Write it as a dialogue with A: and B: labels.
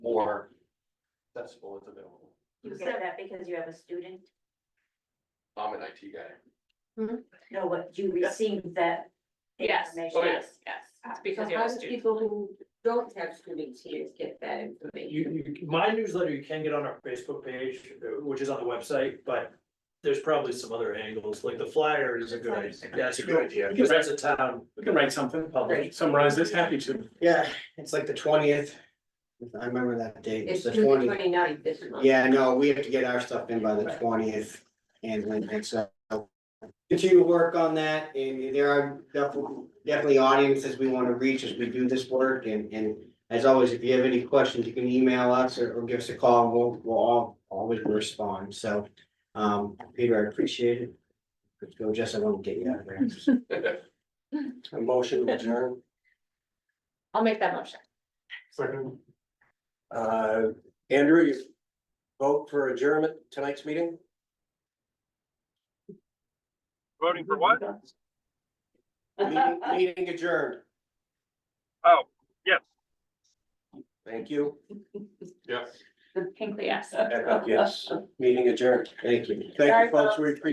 A: or accessible is available.
B: You get that because you have a student?
A: I'm an IT guy.
B: No, what, you received that
C: Yes,
B: information?
A: Oh, yeah.
C: yes, yes. It's because
D: So
C: you
D: how
C: have a
D: do
C: student.
D: people who don't have students here get that information?
E: You, you, my newsletter, you can get on our Facebook page, uh, which is on the website, but there's probably some other angles, like the flyer is a good idea. That's a good idea, because that's a town
F: We can write something,
E: public.
F: summarize this, happy to.
G: Yeah, it's like the twentieth. I remember that date.
D: It's
G: It's the
D: June 29th
G: twentieth.
D: this month.
G: Yeah, no, we have to get our stuff in by the twentieth and link it, so. Continue to work on that and there are definitely, definitely audiences we want to reach as we do this work and, and. As always, if you have any questions, you can email us or, or give us a call and we'll, we'll all, always respond, so. Um, Peter, I appreciate it. Let's go, Jess, I won't get you out of there.
A: A motion to adjourn.
C: I'll make that motion.
A: Second. Uh, Andrew, you vote for adjournment tonight's meeting?
H: Voting for what?
A: Meeting meeting adjourned.
H: Oh, yes.
A: Thank you.
C: Hinkley, yes.
A: Echo, yes. Meeting adjourned. Thank you. Thank you, folks. We appreciate